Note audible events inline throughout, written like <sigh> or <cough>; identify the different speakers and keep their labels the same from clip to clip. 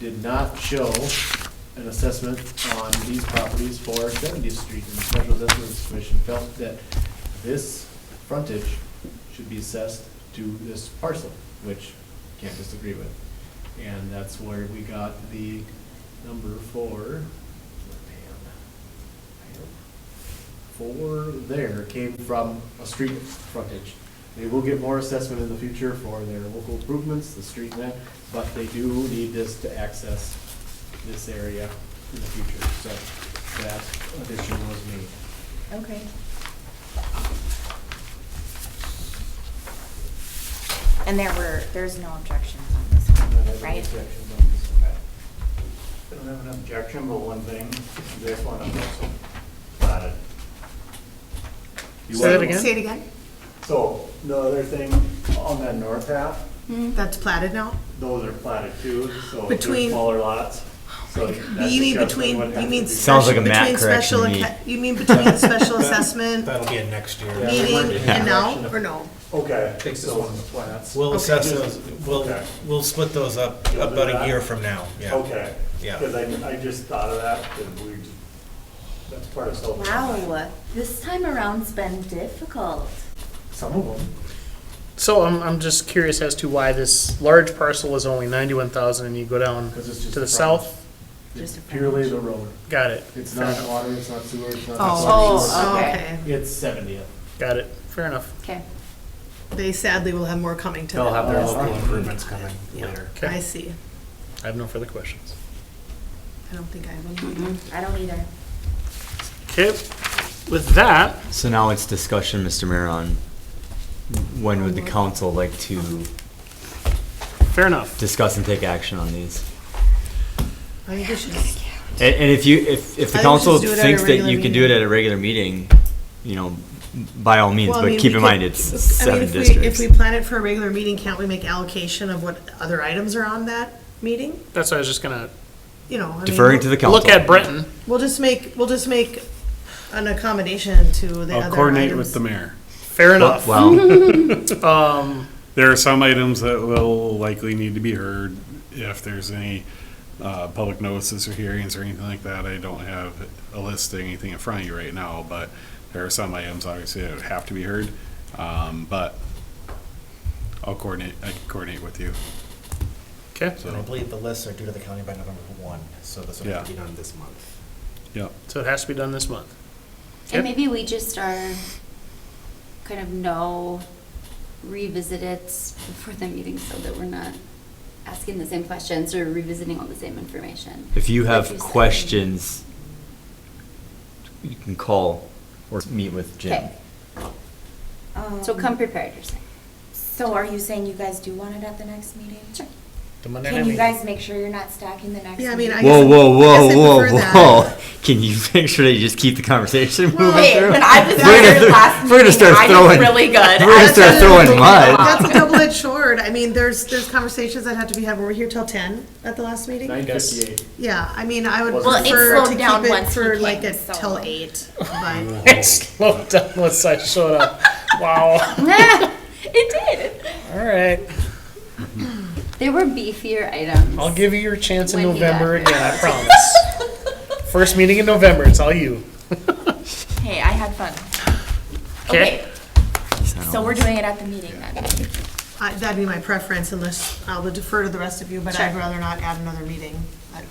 Speaker 1: did not show an assessment on these properties for 70th Street. And the Special Assessment Commission felt that this frontage should be assessed to this parcel, which can't disagree with. And that's where we got the number for, for there came from a street frontage. They will get more assessment in the future for their local improvements, the street net, but they do need this to access this area in the future, so that addition was made.
Speaker 2: Okay. And there were, there's no objections on this one, right?
Speaker 3: I don't have an objection, but one thing, this one I'm also dotted.
Speaker 1: You
Speaker 4: Say it
Speaker 1: want-
Speaker 4: again?
Speaker 5: Say it again?
Speaker 3: So the other thing on that north half,
Speaker 5: That's platted now?
Speaker 3: those are platted too, so they're
Speaker 5: Between- Oh
Speaker 3: smaller lots. So that's
Speaker 5: You mean
Speaker 3: discussed
Speaker 5: between,
Speaker 3: what
Speaker 5: you
Speaker 3: has
Speaker 5: mean.
Speaker 3: to be-
Speaker 4: Sounds like a
Speaker 5: special-
Speaker 4: Matt
Speaker 5: between
Speaker 4: correction
Speaker 5: special
Speaker 4: to me.
Speaker 5: acca- You mean between special assessment
Speaker 6: That'll be in next year.
Speaker 5: meeting and now, or no?
Speaker 3: Okay.
Speaker 6: Takes this
Speaker 3: so-
Speaker 6: one to plats. We'll assess those, we'll,
Speaker 3: Okay.
Speaker 6: we'll split those up
Speaker 3: You'll do
Speaker 6: about
Speaker 3: that?
Speaker 6: a year from now, yeah.
Speaker 3: Okay.
Speaker 6: Yeah.
Speaker 3: Because I, I just thought of that, because we, that's part of self.
Speaker 2: Wow, this time around's been difficult.
Speaker 1: Some of them.
Speaker 4: So I'm, I'm just curious as to why this large parcel is only ninety-one thousand and you go down
Speaker 1: 'Cause it's just
Speaker 4: to
Speaker 1: a
Speaker 4: the south?
Speaker 1: It's
Speaker 2: Just a frontage.
Speaker 1: purely the road.
Speaker 4: Got it,
Speaker 1: It's not water, it's not sewer, it's not.
Speaker 2: Oh, okay.
Speaker 1: It's seventieth.
Speaker 4: got it, fair enough.
Speaker 2: Okay.
Speaker 5: They sadly will have more coming to them.
Speaker 1: their local
Speaker 6: improvements coming later.
Speaker 5: I
Speaker 4: Okay,
Speaker 5: see.
Speaker 4: I have no further questions.
Speaker 5: I don't think I have any.
Speaker 2: I don't either.
Speaker 4: Okay, with that,
Speaker 7: So now it's discussion, Mr. Mayor, on when would the council like to
Speaker 4: fair enough.
Speaker 7: discuss and take action on these?
Speaker 5: I think we should,
Speaker 7: And, and if you, if, if the
Speaker 5: I think we should
Speaker 7: council
Speaker 5: do it at a
Speaker 7: thinks that
Speaker 5: regular
Speaker 7: you can do it
Speaker 5: meeting.
Speaker 7: at a regular meeting, you know, by all means,
Speaker 5: Well, I
Speaker 7: but
Speaker 5: mean,
Speaker 7: keep
Speaker 5: we
Speaker 7: in
Speaker 5: could-
Speaker 7: mind, it's
Speaker 5: I mean,
Speaker 7: seven
Speaker 5: if we, if
Speaker 7: districts.
Speaker 5: we plan it for a regular meeting, can't we make allocation of what other items are on that meeting?
Speaker 4: That's what I was just gonna
Speaker 5: You know, I mean.
Speaker 7: Deferring to the council.
Speaker 4: look at Brenton.
Speaker 5: We'll just make, we'll just make an accommodation to the other
Speaker 8: I'll
Speaker 5: items.
Speaker 8: coordinate with the mayor.
Speaker 4: Fair
Speaker 7: Well,
Speaker 4: enough.
Speaker 5: <laughs>
Speaker 7: well,
Speaker 8: There are some items that will likely need to be heard if there's any uh, public notices or hearings or anything like that. I don't have a list of anything in front of you right now, but there are some items obviously that would have to be heard. Um, But I'll coordinate, I can coordinate with you.
Speaker 4: Okay,
Speaker 8: So,
Speaker 6: And I believe the lists are due to the county by November one, so this will have to be
Speaker 8: Yeah.
Speaker 6: done this month.
Speaker 8: yeah.
Speaker 4: so it has to be done this month. Yep.
Speaker 9: And maybe we just are, kind of know, revisit it before the meeting so that we're not asking the same questions or revisiting all the same information.
Speaker 7: if you
Speaker 9: Like
Speaker 7: have
Speaker 9: said.
Speaker 7: questions, you can call or meet with Jim.
Speaker 9: Okay, so come prepared, you're saying.
Speaker 2: Um, So are you saying you guys do want it at the next meeting? Sure.
Speaker 4: The Monday night
Speaker 2: Can you
Speaker 4: meeting.
Speaker 2: guys make sure you're not stacking the next meeting?
Speaker 5: Yeah, I mean, I-
Speaker 7: Whoa,
Speaker 5: guess-
Speaker 7: whoa,
Speaker 5: I guess I
Speaker 7: whoa,
Speaker 5: prefer
Speaker 7: whoa,
Speaker 5: that.
Speaker 7: whoa. <laughs> Can you make sure that you just keep the conversation
Speaker 5: <laughs>
Speaker 7: moving
Speaker 2: Hey,
Speaker 7: through?
Speaker 2: when I was
Speaker 7: We're gonna
Speaker 2: there
Speaker 7: th-
Speaker 2: last
Speaker 7: we're gonna
Speaker 2: meeting,
Speaker 7: start
Speaker 2: I did
Speaker 7: throwing-
Speaker 2: really good.
Speaker 7: We're
Speaker 2: I
Speaker 7: gonna
Speaker 2: was
Speaker 7: start throwing mud.
Speaker 5: That's a double-edged sword. I mean, there's, there's conversations that have to be had. Were we here till ten at the last meeting?
Speaker 1: Nine fifty-eight.
Speaker 5: Yeah, I mean, I would
Speaker 1: Well, it
Speaker 5: prefer
Speaker 2: slowed
Speaker 5: to keep
Speaker 2: down
Speaker 5: it
Speaker 2: once he
Speaker 5: for
Speaker 2: came,
Speaker 5: like a
Speaker 2: so-
Speaker 5: till eight. but-
Speaker 4: <laughs> It slowed down once I showed up. Wow,
Speaker 5: <laughs>
Speaker 9: It did.
Speaker 4: all right.
Speaker 9: There were beefier items.
Speaker 4: I'll give you your chance in
Speaker 9: When you got
Speaker 4: November
Speaker 9: here.
Speaker 4: again, I promise.
Speaker 9: <laughs>
Speaker 4: First meeting in November, it's all you.
Speaker 2: Hey, I had fun.
Speaker 4: Okay.
Speaker 2: Okay, so we're doing it at the meeting then.
Speaker 5: I- That'd be my preference unless I would defer to the rest of you, but I'd
Speaker 2: Sure.
Speaker 5: rather not add another meeting. I-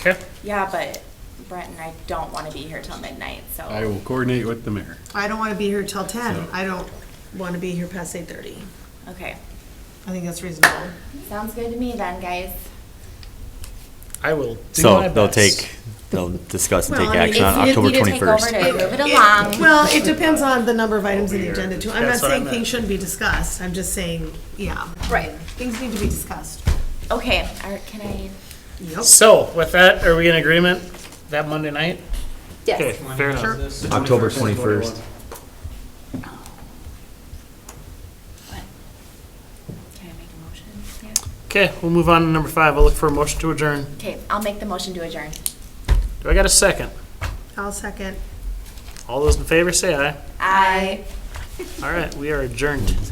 Speaker 4: Okay,
Speaker 2: Yeah, but Brett and I don't want to be here till midnight, so.
Speaker 8: I will coordinate with the mayor.
Speaker 5: I don't want to be here till ten. I don't want to be here past eight thirty.
Speaker 2: Okay,
Speaker 5: I think that's reasonable.
Speaker 2: sounds good to me then, guys.
Speaker 4: I will do my
Speaker 7: So
Speaker 4: best.
Speaker 7: they'll take, they'll discuss and
Speaker 5: Well,
Speaker 7: take
Speaker 5: I mean,
Speaker 7: action on
Speaker 2: If you
Speaker 7: October
Speaker 2: need to take over
Speaker 7: 21st.
Speaker 2: to move it along.
Speaker 5: Well, it depends on the number of items in the agenda too. I'm not
Speaker 4: That's what I
Speaker 5: saying
Speaker 4: meant.
Speaker 5: things shouldn't be discussed. I'm just saying, yeah.
Speaker 2: Right.
Speaker 5: Things need to be discussed.
Speaker 2: Okay, are- can I?
Speaker 5: Yep.
Speaker 4: So with that, are we in agreement that Monday night? Okay,
Speaker 9: Yes,
Speaker 4: fair enough.
Speaker 7: October 21st.
Speaker 2: Can I make a motion? Yeah.
Speaker 4: Okay, we'll move on to number five. I'll look for a motion to adjourn.
Speaker 2: Okay, I'll make the motion to adjourn.
Speaker 4: Do I got a second?
Speaker 5: I'll second.
Speaker 4: All those in favor say aye.
Speaker 2: Aye.
Speaker 4: All right, we are adjourned.